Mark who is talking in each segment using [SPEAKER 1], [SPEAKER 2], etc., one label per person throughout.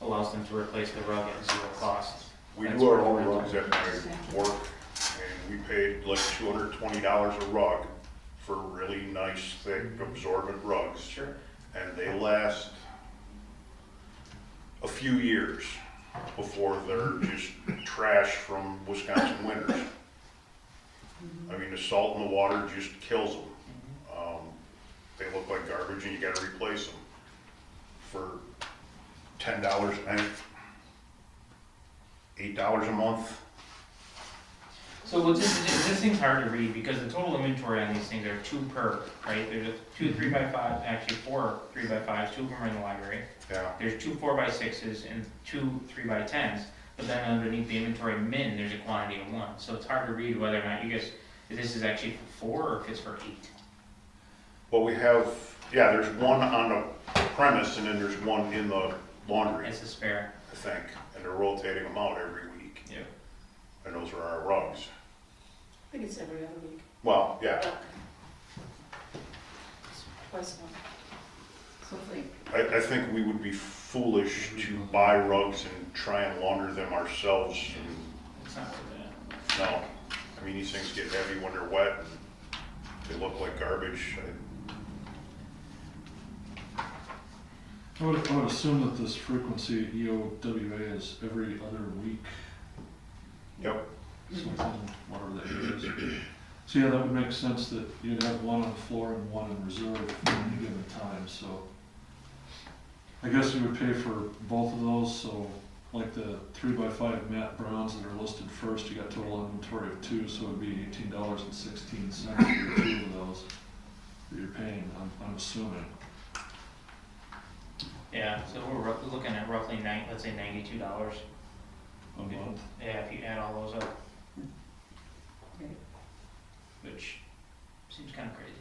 [SPEAKER 1] allows them to replace the rug at zero cost.
[SPEAKER 2] We
[SPEAKER 1] That's
[SPEAKER 2] do our
[SPEAKER 1] where
[SPEAKER 2] own
[SPEAKER 1] we're
[SPEAKER 2] rugs
[SPEAKER 1] at.
[SPEAKER 2] at my work, and we paid like two hundred twenty dollars a rug for really nice, thick, absorbent rugs,
[SPEAKER 1] Sure.
[SPEAKER 2] and they last a few years before they're just trash from Wisconsin winters. I mean, the salt in the water just kills them. Um, they look like garbage, and you gotta replace them for ten dollars, I think, eight dollars a month.
[SPEAKER 1] So what's, this this thing's hard to read because the total inventory on these things are two per, right? There's a two three by five, actually four three by fives, two of them are in the library.
[SPEAKER 2] Yeah,
[SPEAKER 1] There's two four by sixes and two three by tens, but then underneath the inventory min, there's a quantity of one. So it's hard to read whether or not you guys, if this is actually for four or if it's for eight.
[SPEAKER 2] well, we have, yeah, there's one on the premise and then there's one in the laundry, I
[SPEAKER 1] It's a spare.
[SPEAKER 2] think. And they're rotating them out every week.
[SPEAKER 1] Yeah.
[SPEAKER 2] And those are our rugs.
[SPEAKER 3] I think it's every other week.
[SPEAKER 2] Well, yeah,
[SPEAKER 3] Twice a month. Something.
[SPEAKER 2] I, I think we would be foolish to buy rugs and try and launder them ourselves. and-
[SPEAKER 1] It's not for that.
[SPEAKER 2] No, I mean, these things get heavy when they're wet and they look like garbage. I-
[SPEAKER 4] I would, I would assume that this frequency E EOWA is every other week,
[SPEAKER 2] Yep,
[SPEAKER 4] something, whatever that is. So yeah, that would make sense that you'd have one on the floor and one in reserve at any given time, so. I guess you would pay for both of those, so like the three by five Matt Browns that are listed first, you got total inventory of two, so it'd be eighteen dollars and sixteen cents for two of those that you're paying, I'm, I'm assuming.
[SPEAKER 1] Yeah, so we're roughly looking at roughly nine, let's say ninety-two dollars.
[SPEAKER 4] A month,
[SPEAKER 1] Yeah, if you add all those up.
[SPEAKER 3] Right.
[SPEAKER 1] Which seems kind of crazy,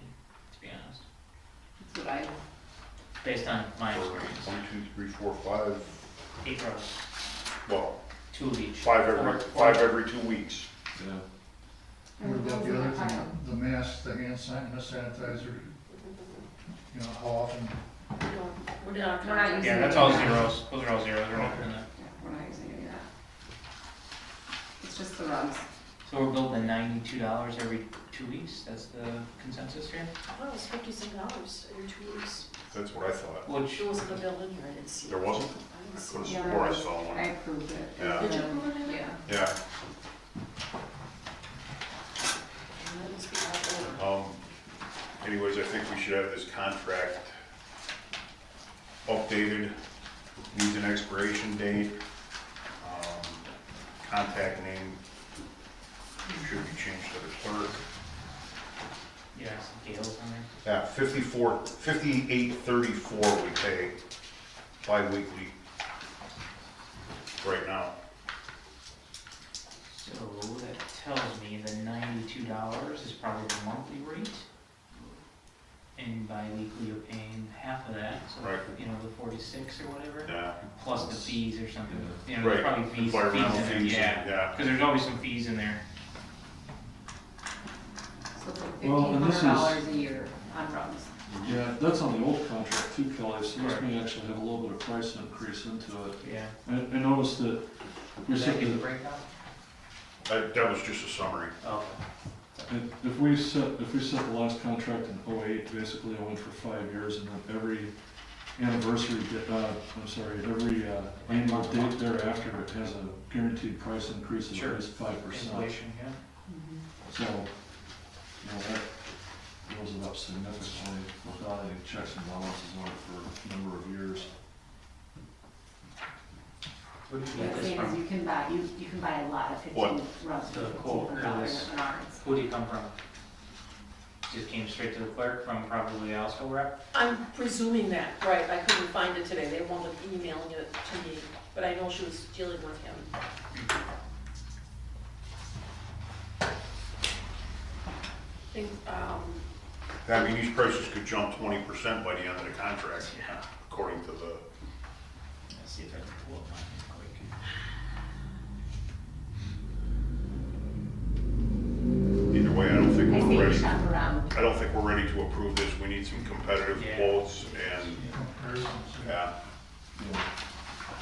[SPEAKER 1] to be honest,
[SPEAKER 3] That's what I,
[SPEAKER 1] based on my
[SPEAKER 2] for
[SPEAKER 1] experience.
[SPEAKER 2] one, two, three, four, five,
[SPEAKER 1] Eight rows,
[SPEAKER 2] well,
[SPEAKER 1] two of each.
[SPEAKER 2] five
[SPEAKER 1] Four-
[SPEAKER 2] every,
[SPEAKER 1] four-
[SPEAKER 2] five every two weeks.
[SPEAKER 4] yeah.
[SPEAKER 5] What about the other thing, the mask, the hand san- the sanitizer? You know, how often,
[SPEAKER 3] we're not,
[SPEAKER 6] We're not
[SPEAKER 1] Yeah, that's all zeros, those are all zeros, we're not doing that.
[SPEAKER 3] Yeah, We're not using any of that. It's just the rugs.
[SPEAKER 1] So we're building ninety-two dollars every two weeks, that's the consensus here?
[SPEAKER 7] Oh, it's fifty-six dollars every two weeks.
[SPEAKER 2] That's what I thought.
[SPEAKER 1] Which,
[SPEAKER 7] There wasn't a bill in here, I didn't see it.
[SPEAKER 2] There wasn't?
[SPEAKER 7] I didn't
[SPEAKER 2] I
[SPEAKER 7] see
[SPEAKER 2] could
[SPEAKER 7] it.
[SPEAKER 2] have swore I saw
[SPEAKER 3] I
[SPEAKER 2] one.
[SPEAKER 3] approved it.
[SPEAKER 2] Yeah.
[SPEAKER 7] Did you approve it?
[SPEAKER 3] Yeah.
[SPEAKER 2] Yeah,
[SPEAKER 7] That must be out of order.
[SPEAKER 2] um, anyways, I think we should have this contract updated, needs an expiration date, um, contact name should be changed to the clerk.
[SPEAKER 1] yeah, some Gales on there.
[SPEAKER 2] Yeah, fifty-four, fifty-eight thirty-four we pay bi-weekly right now.
[SPEAKER 1] So that tells me the ninety-two dollars is probably the monthly rate. And bi-weekly you're paying half of that, so,
[SPEAKER 2] Right.
[SPEAKER 1] you know, the forty-six or whatever,
[SPEAKER 2] Yeah,
[SPEAKER 1] plus the fees or something, you know,
[SPEAKER 2] right.
[SPEAKER 1] there's probably fees, fees
[SPEAKER 2] Environmental
[SPEAKER 1] in there,
[SPEAKER 2] fees,
[SPEAKER 1] yeah.
[SPEAKER 2] Yeah,
[SPEAKER 1] Cause there's always some fees in there,
[SPEAKER 3] So it's like
[SPEAKER 4] Well,
[SPEAKER 3] fifteen
[SPEAKER 4] and this
[SPEAKER 3] hundred
[SPEAKER 4] is-
[SPEAKER 3] dollars a year on rugs.
[SPEAKER 4] Yeah, that's on the old contract too, Kelly, so this may actually have a little bit of price increase into it.
[SPEAKER 1] yeah.
[SPEAKER 4] I, I noticed that we
[SPEAKER 1] Does that
[SPEAKER 4] set
[SPEAKER 1] give a
[SPEAKER 4] the,
[SPEAKER 1] breakout?
[SPEAKER 2] that, that was just a summary.
[SPEAKER 1] Okay.
[SPEAKER 4] if- if we set, if we set the last contract in oh-eight, basically it went for five years and then every anniversary, di- uh, I'm sorry, every, uh, annual date thereafter, it has a guaranteed price increase of
[SPEAKER 1] Sure.
[SPEAKER 4] at least five percent.
[SPEAKER 1] Inflation, yeah.
[SPEAKER 4] So, you know, that goes it up significantly without any checks and balances on it for a number of years.
[SPEAKER 1] Where did you
[SPEAKER 3] Yeah,
[SPEAKER 1] get this
[SPEAKER 3] same as
[SPEAKER 1] from?
[SPEAKER 3] you can buy, you, you can buy a lot of
[SPEAKER 2] What?
[SPEAKER 3] fifteen rugs for
[SPEAKER 1] The
[SPEAKER 3] fifteen
[SPEAKER 1] quote
[SPEAKER 3] hundred dollars
[SPEAKER 1] is-
[SPEAKER 3] on ours.
[SPEAKER 1] Who do you come from? Just came straight to the clerk from probably Alsco rep?
[SPEAKER 7] I'm presuming that, right, I couldn't find it today, they wound up emailing it to me, but I know she was dealing with him. I think, um,
[SPEAKER 2] I mean, these prices could jump twenty percent by the end of the contract, according to the,
[SPEAKER 1] Let's see if I can pull up mine real quick.
[SPEAKER 2] either way, I don't think
[SPEAKER 3] I
[SPEAKER 2] we're
[SPEAKER 3] think
[SPEAKER 2] ready.
[SPEAKER 3] shop around.
[SPEAKER 2] I don't think we're ready to approve this, we need some competitive
[SPEAKER 1] Yeah.
[SPEAKER 2] quotes and, uh,
[SPEAKER 5] comparisons?
[SPEAKER 2] yeah,
[SPEAKER 4] Yeah.